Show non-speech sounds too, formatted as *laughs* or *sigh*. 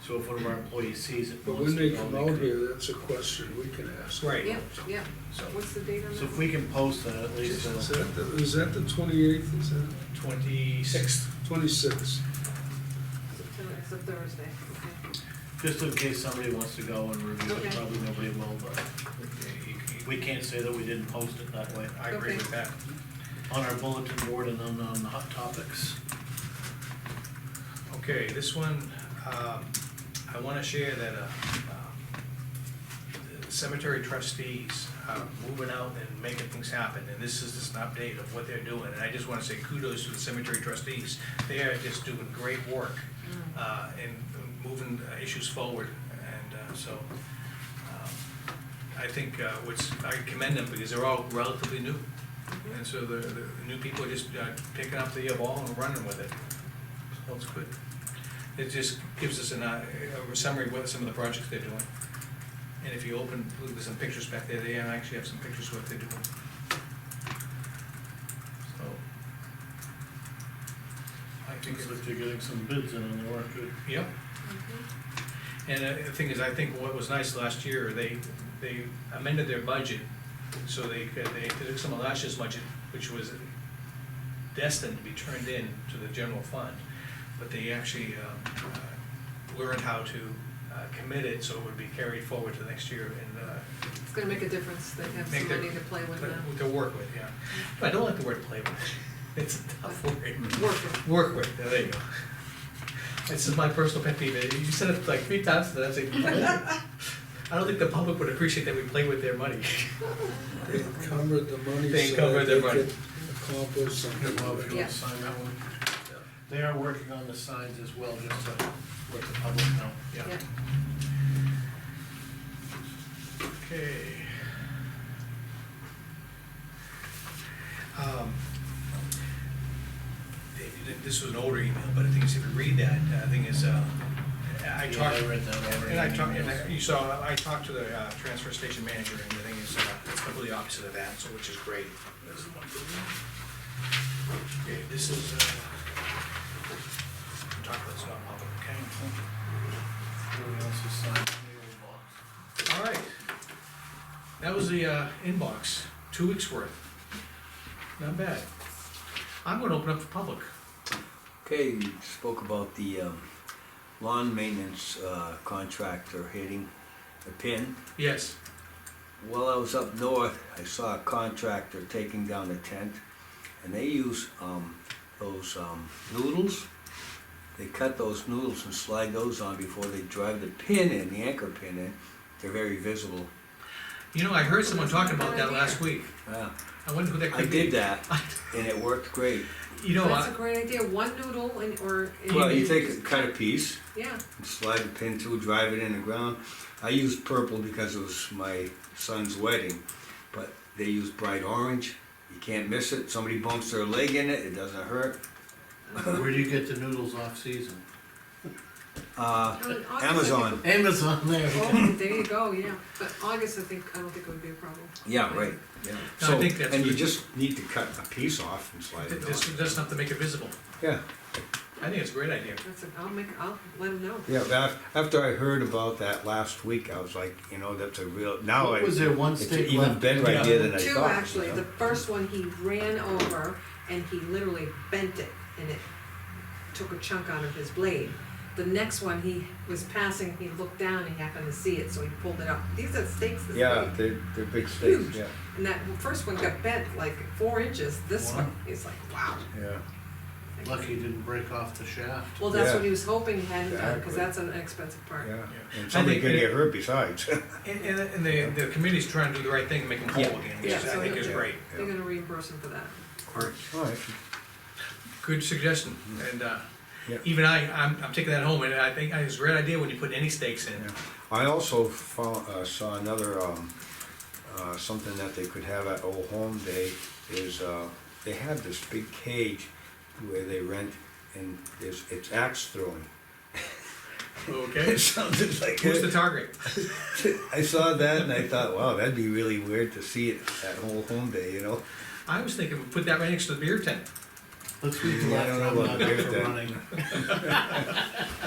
So if one of our employees sees it. But wants when to they go, come out can- here, that's a question we can ask. Right, Yep, yep. so, What's the date on that? so if we can post that, at least, uh, Is that, the- is that the twenty-eighth, is that Twenty-sixth. twenty-sixth? September- It's a Thursday, okay. just in case somebody wants to go and review it, Okay. probably nobody will, but we can't say that we didn't post it that way. I agree with that. On our bulletin board and on, on the hot topics. Okay, this one, um, I wanna share that, uh, um, the cemetery trustees are moving out and making things happen, and this is just an update of what they're doing, and I just wanna say kudos to the cemetery trustees. They are just doing great work, uh, and moving uh, issues forward, and, uh, so, um, I think, uh, what's, I commend them, because they're all relatively new, and so the, the new people are just uh, picking up the ball and running with it. Well, it's good. It just gives us an, uh, a summary of what some of the projects they're doing. And if you open, look, there's some pictures back there, they actually have some pictures of what they're doing. So. I think, Seems like they're getting some bids in and they weren't good. yep, Mhm. and uh, the thing is, I think what was nice last year, they, they amended their budget, so they, could- they took some of last year's budget, which was destined to be turned in to the general fund, but they actually um, uh, learned how to uh, commit it, so it would be carried forward to next year and uh, It's gonna make a difference, they have Make some their- money to play with now. to work with, yeah. But I don't like the word play with, *laughs* it's a tough word. Work with. Work with, there you go. This is my personal pet peeve, you said it like three times, and I say, I don't think the public would appreciate that we play with their money. *laughs* They covered the money. They so covered their money. could Accomplish something. Bob, if you wanna with it. Yeah. sign that one. They are working on the signs as well, just to let the public know. Yeah, Yeah. okay. Um, th- th- This was an older email, but I think it's- if you read that, uh, I think it's, uh, I Yeah, talked. I read that already. And I talked, and I- you saw, I talked to the uh, transfer station manager, and the thing is, uh, it's completely opposite of that, so which is great. Okay, this is, uh, we'll talk about this not public, okay? Everyone else has signed the All right. That was the uh, inbox, two weeks' worth. Not bad. I'm gonna open up for public. Okay, you spoke about the um, lawn maintenance uh, contractor hitting the pin. Yes, While I was up north, I saw a contractor taking down a tent, and they use um, those um, noodles. They cut those noodles and slide those on before they drive the pin in, the anchor pin in. They're very visible. you know, I heard someone talking about that last week. Yeah, I wonder who that I could be. did that, and it worked great. *laughs* You know, That's I- a great idea, one noodle and, or. Well, you take a cut a piece, Yeah, slide the pin through, drive it in the ground. I used purple because it was my son's wedding, but they use bright orange. You can't miss it. Somebody bumps their leg in it, it doesn't hurt. ball. Where do you get the noodles off season? Uh, Oh, in August, I think- Amazon. Amazon there. Oh, there you go, yeah, but August, I think, I don't think it would be a problem. Yeah, right. Yeah. No, I So, think that's and you good. just need to cut a piece off and slide it This on. doesn't have to make it visible. Yeah, I think it's a great idea. That's, a- I'll make, I'll let them know. yeah. but af- After I heard about that last week, I was like, you know, that's a real. Now I. What was there one it's stick an even left? better Yeah. idea than I Two, thought. you actually, know? the first one, he ran over and he literally bent it and it took a chunk out of his blade. The next one, he was passing, he looked down and he happened to see it, so he pulled it up. These are stakes this Yeah, big. they're, they're big stakes. Huge. Yeah, And that first one got bent like four inches, this Wow. one is like, wow. yeah. Lucky it didn't break off the shaft. Well, that's Yeah. what he was hoping he hadn't done, because Exactly. that's an expensive part. Yeah, Yeah. I and somebody think could it- get hurt besides. *laughs* And, and, and the, the committee's trying to do the right thing, and make them whole Yeah. again, which is- I think is Yeah. great. They're gonna reimburse him for that. All right. Good suggestion, and, uh, Mm-hmm. Yeah. even I, I'm, I'm taking that home, and I think it's a great idea when you put any stakes in. Yeah. I also found, uh, saw another, um, uh, something that they could have at Old Home Day is, uh, they have this big cage where they rent and there's, it's axe throwing. *laughs* Okay, It sounded like, who's the target? I saw that and I thought, wow, that'd be really weird to see it at Old Home Day, you know? I was thinking, we put that right next to the beer tent. Let's leave the Yeah, I don't know laptop about not up beer for then. running.